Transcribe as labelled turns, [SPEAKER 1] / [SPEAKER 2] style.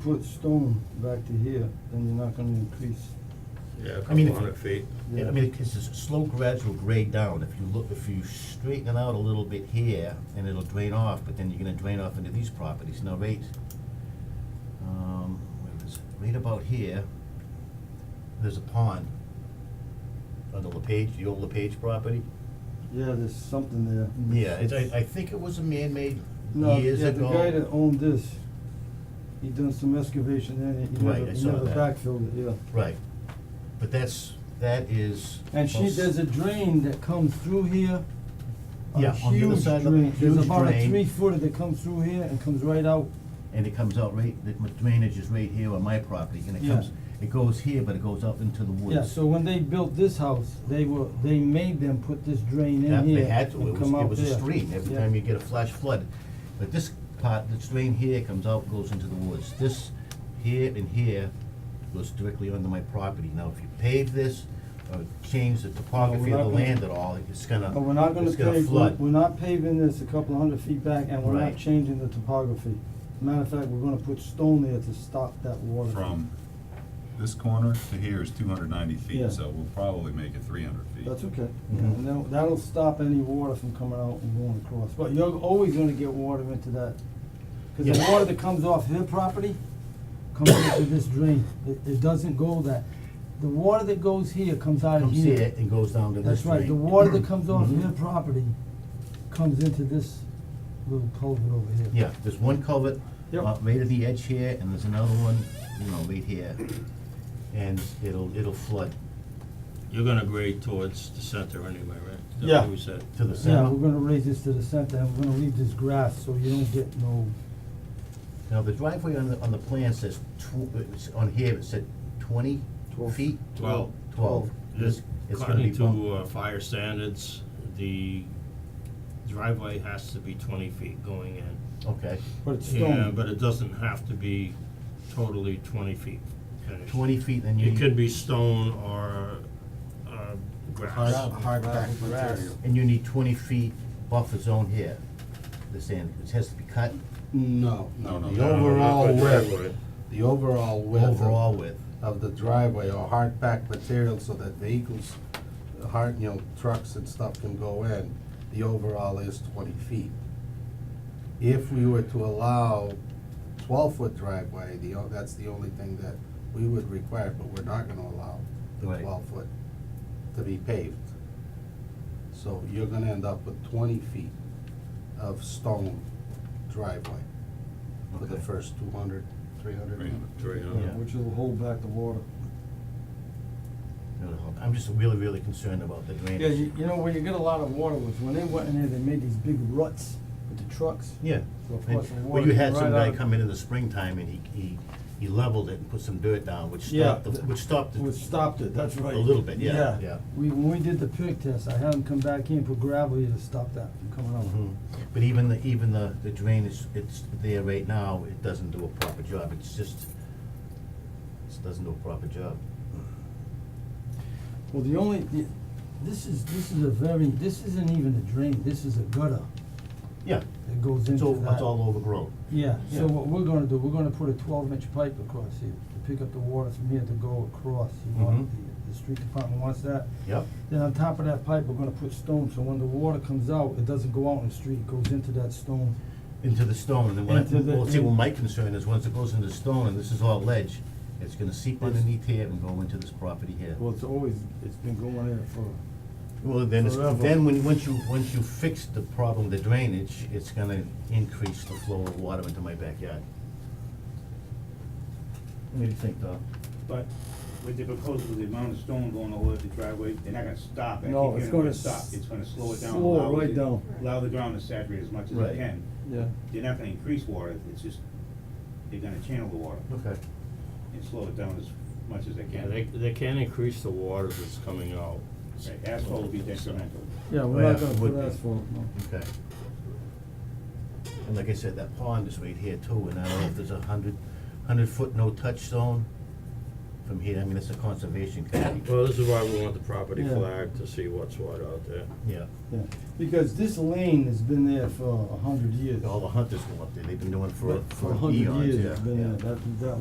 [SPEAKER 1] foot stone back to here, then you're not gonna increase.
[SPEAKER 2] Yeah, a
[SPEAKER 3] I
[SPEAKER 2] couple
[SPEAKER 3] mean, if-
[SPEAKER 2] hundred feet.
[SPEAKER 3] Yeah, I mean, it's a slow gradual grade down, if you look, if you straighten it out a little bit here, and it'll drain off, but then you're gonna drain off into these properties, now right, um, where is it, right about here, there's a pond on the LaPage, the old LaPage property,
[SPEAKER 1] Yeah, there's something there.
[SPEAKER 3] yeah, it's, I, I think it was a man-made
[SPEAKER 1] Mm-hmm. No,
[SPEAKER 3] years
[SPEAKER 1] yeah, the
[SPEAKER 3] ago.
[SPEAKER 1] guy that owned this, he done some excavation there, and he
[SPEAKER 3] Right,
[SPEAKER 1] never,
[SPEAKER 3] I
[SPEAKER 1] he
[SPEAKER 3] saw
[SPEAKER 1] never
[SPEAKER 3] that.
[SPEAKER 1] backfilled it, yeah.
[SPEAKER 3] Right, but that's, that is.
[SPEAKER 1] And she,
[SPEAKER 3] well,
[SPEAKER 1] there's a drain that comes through here. a
[SPEAKER 3] Yeah, on the other
[SPEAKER 1] huge
[SPEAKER 3] side of the-
[SPEAKER 1] drain. There's
[SPEAKER 3] huge
[SPEAKER 1] about a
[SPEAKER 3] drain.
[SPEAKER 1] three footer that comes through here and comes right out.
[SPEAKER 3] and it comes out right, the drainage is right here on my property, and it
[SPEAKER 1] Yeah.
[SPEAKER 3] comes, it goes here, but it goes out into the woods.
[SPEAKER 1] Yeah, so when they built this house, they were, they made them put this drain
[SPEAKER 3] That-
[SPEAKER 1] in
[SPEAKER 3] They
[SPEAKER 1] here
[SPEAKER 3] had to,
[SPEAKER 1] and
[SPEAKER 3] it was,
[SPEAKER 1] come out
[SPEAKER 3] it was a
[SPEAKER 1] there.
[SPEAKER 3] stream, every
[SPEAKER 1] Yeah.
[SPEAKER 3] time you get a flash flood. But this part, this drain here comes out, goes into the woods. This here and here goes directly onto my property. Now, if you pave this, or change the topography
[SPEAKER 1] we're
[SPEAKER 3] of the
[SPEAKER 1] not gonna-
[SPEAKER 3] land at all, it's gonna,
[SPEAKER 1] But we're not gonna
[SPEAKER 3] it's gonna
[SPEAKER 1] pave, we're
[SPEAKER 3] flood.
[SPEAKER 1] we're not paving this a couple of hundred feet back and we're not
[SPEAKER 3] Right.
[SPEAKER 1] changing the topography. Matter of fact, we're gonna put stone there to stop that water.
[SPEAKER 4] From this corner to here is two hundred ninety
[SPEAKER 1] Yeah.
[SPEAKER 4] feet, so we'll probably make it three hundred feet.
[SPEAKER 1] That's okay,
[SPEAKER 3] Mhm.
[SPEAKER 1] yeah, and that'll, that'll stop any water from coming out and going across, but you're always gonna get water into that. Cause the
[SPEAKER 3] Yeah.
[SPEAKER 1] water that comes off their property comes into this drain, it, it doesn't go that, the water that goes here comes out of
[SPEAKER 3] Comes
[SPEAKER 1] here.
[SPEAKER 3] here and goes down to this
[SPEAKER 1] That's
[SPEAKER 3] drain.
[SPEAKER 1] right, the water that comes off
[SPEAKER 3] Mhm.
[SPEAKER 1] their property comes into this little culvert over here.
[SPEAKER 3] Yeah, there's one culvert,
[SPEAKER 1] Yep.
[SPEAKER 3] uh, right at the edge here, and there's another one, you know, right here. And it'll, it'll flood
[SPEAKER 2] You're gonna grade towards the center anyway, right? Is that
[SPEAKER 1] Yeah.
[SPEAKER 2] what we said?
[SPEAKER 3] to the
[SPEAKER 1] Yeah,
[SPEAKER 3] center.
[SPEAKER 1] we're gonna raise this to the center, and we're gonna leave this grass, so you don't get no,
[SPEAKER 3] Now, the driveway on the, on the plan says tw- it's on here, it said twenty
[SPEAKER 1] Twelve.
[SPEAKER 3] feet?
[SPEAKER 2] Twelve.
[SPEAKER 3] Twelve. This, it's gonna be
[SPEAKER 2] According
[SPEAKER 3] bumped,
[SPEAKER 2] to uh, fire standards, the driveway has to be twenty feet going in.
[SPEAKER 3] okay,
[SPEAKER 1] but it's
[SPEAKER 2] Yeah,
[SPEAKER 1] stone.
[SPEAKER 2] but it doesn't have to be totally twenty feet finished.
[SPEAKER 3] twenty feet, then you.
[SPEAKER 2] It could be stone or, uh, grass.
[SPEAKER 3] hard packed material. And you need twenty feet buffer zone here, the sand, it has to be cut
[SPEAKER 5] No,
[SPEAKER 4] No,
[SPEAKER 5] no,
[SPEAKER 4] no,
[SPEAKER 5] the
[SPEAKER 4] no, no, not
[SPEAKER 5] overall
[SPEAKER 2] the
[SPEAKER 5] width,
[SPEAKER 2] driveway.
[SPEAKER 5] the overall width
[SPEAKER 3] overall with,
[SPEAKER 5] of the driveway or hard packed material so that vehicles, uh, hard, you know, trucks and stuff can go in, the overall is twenty feet. If we were to allow twelve foot driveway, the, o- that's the only thing that we would require, but we're not gonna allow the
[SPEAKER 3] Right.
[SPEAKER 5] twelve foot to be paved. So you're gonna end up with twenty feet of stone driveway for the
[SPEAKER 3] Okay.
[SPEAKER 5] first 200, 300.
[SPEAKER 4] Three hundred.
[SPEAKER 2] Three, uh,
[SPEAKER 3] Yeah.
[SPEAKER 1] Which will hold back the water.
[SPEAKER 3] you know, I'm just really, really concerned about the drainage.
[SPEAKER 1] Yeah, you, you know, where you get a lot of water was, when they went in there, they made these big ruts with the trucks.
[SPEAKER 3] Yeah.
[SPEAKER 1] So of
[SPEAKER 3] And-
[SPEAKER 1] course the
[SPEAKER 3] Well,
[SPEAKER 1] water
[SPEAKER 3] you
[SPEAKER 1] came
[SPEAKER 3] had some
[SPEAKER 1] right
[SPEAKER 3] guy
[SPEAKER 1] out.
[SPEAKER 3] come in in the springtime and he, he, he leveled it and put some dirt down, which
[SPEAKER 1] Yeah,
[SPEAKER 3] stopped, the
[SPEAKER 1] th-
[SPEAKER 3] which stopped
[SPEAKER 1] We
[SPEAKER 3] the,
[SPEAKER 1] stopped it, that's right.
[SPEAKER 3] a little bit, yeah, yeah.
[SPEAKER 1] We, when we did the pig test, I had them come back in, put gravel here to stop that from coming out.
[SPEAKER 3] Mhm. But even the, even the, the drain is, it's there right now, it doesn't do a proper job, it's just, it doesn't do a proper job.
[SPEAKER 1] Well, the only, the- this is, this is a very, this isn't even a drain, this is a gutter
[SPEAKER 3] Yeah,
[SPEAKER 1] that goes into that.
[SPEAKER 3] it's all, it's all overgrown.
[SPEAKER 1] Yeah,
[SPEAKER 3] Yeah.
[SPEAKER 1] so what we're gonna do, we're gonna put a twelve inch pipe across here to pick up the water from here to go across, you know,
[SPEAKER 3] Mhm.
[SPEAKER 1] the, the street department wants that.
[SPEAKER 3] Yep,
[SPEAKER 1] Then on top of that pipe, we're gonna put stone, so when the water comes out, it doesn't go out in the street, it goes into that stone.
[SPEAKER 3] into the stone, and then when, I-
[SPEAKER 1] Into the-
[SPEAKER 3] well, see, well,
[SPEAKER 1] in-
[SPEAKER 3] my concern is once it goes into the stone and this is all ledge, it's gonna seep
[SPEAKER 1] It's-
[SPEAKER 3] underneath here and go into this property here.
[SPEAKER 1] Well, it's always, it's been going there for,
[SPEAKER 3] Well, then, it's-
[SPEAKER 1] Forever.
[SPEAKER 3] then when, once you, once you fix the problem, the drainage, it's gonna increase the flow of water into my backyard. What do you think, Doc?
[SPEAKER 6] But with the proposal, with the amount of stone going all over the driveway, they're not gonna stop it. I
[SPEAKER 1] No,
[SPEAKER 6] keep
[SPEAKER 1] it's
[SPEAKER 6] hearing
[SPEAKER 1] gonna
[SPEAKER 6] stop.
[SPEAKER 1] s-
[SPEAKER 6] It's gonna slow it down.
[SPEAKER 1] slow it
[SPEAKER 6] allow
[SPEAKER 1] right
[SPEAKER 6] the-
[SPEAKER 1] down.
[SPEAKER 6] Allow the ground to saturate as much as
[SPEAKER 3] Right.
[SPEAKER 6] it can.
[SPEAKER 1] yeah.
[SPEAKER 6] They're not gonna increase water, it's just, they're gonna channel the water
[SPEAKER 3] Okay.
[SPEAKER 6] and slow it down as much as they
[SPEAKER 2] Yeah,
[SPEAKER 6] can.
[SPEAKER 2] they, they can increase the water that's coming out.
[SPEAKER 6] Right, Asphalt will be detrimental.
[SPEAKER 1] Yeah,
[SPEAKER 3] Oh,
[SPEAKER 1] we're
[SPEAKER 3] yeah,
[SPEAKER 1] not gonna
[SPEAKER 3] would
[SPEAKER 1] put
[SPEAKER 3] be.
[SPEAKER 1] asphalt, no.
[SPEAKER 3] Okay. And like I said, that pond is right here too, and I don't know if there's a hundred, hundred foot no touch zone from here, I mean, it's a conservation committee,
[SPEAKER 2] Well, this is why we want the property
[SPEAKER 1] Yeah.
[SPEAKER 2] flag to see what's what out there.
[SPEAKER 3] yeah.
[SPEAKER 1] Yeah, because this lane has been there for a hundred years.
[SPEAKER 3] All the hunters go up there, they've been doing it for,
[SPEAKER 1] But
[SPEAKER 3] for
[SPEAKER 1] a hundred
[SPEAKER 3] eons, yeah,
[SPEAKER 1] years,
[SPEAKER 3] yeah.
[SPEAKER 1] it's been there. That, that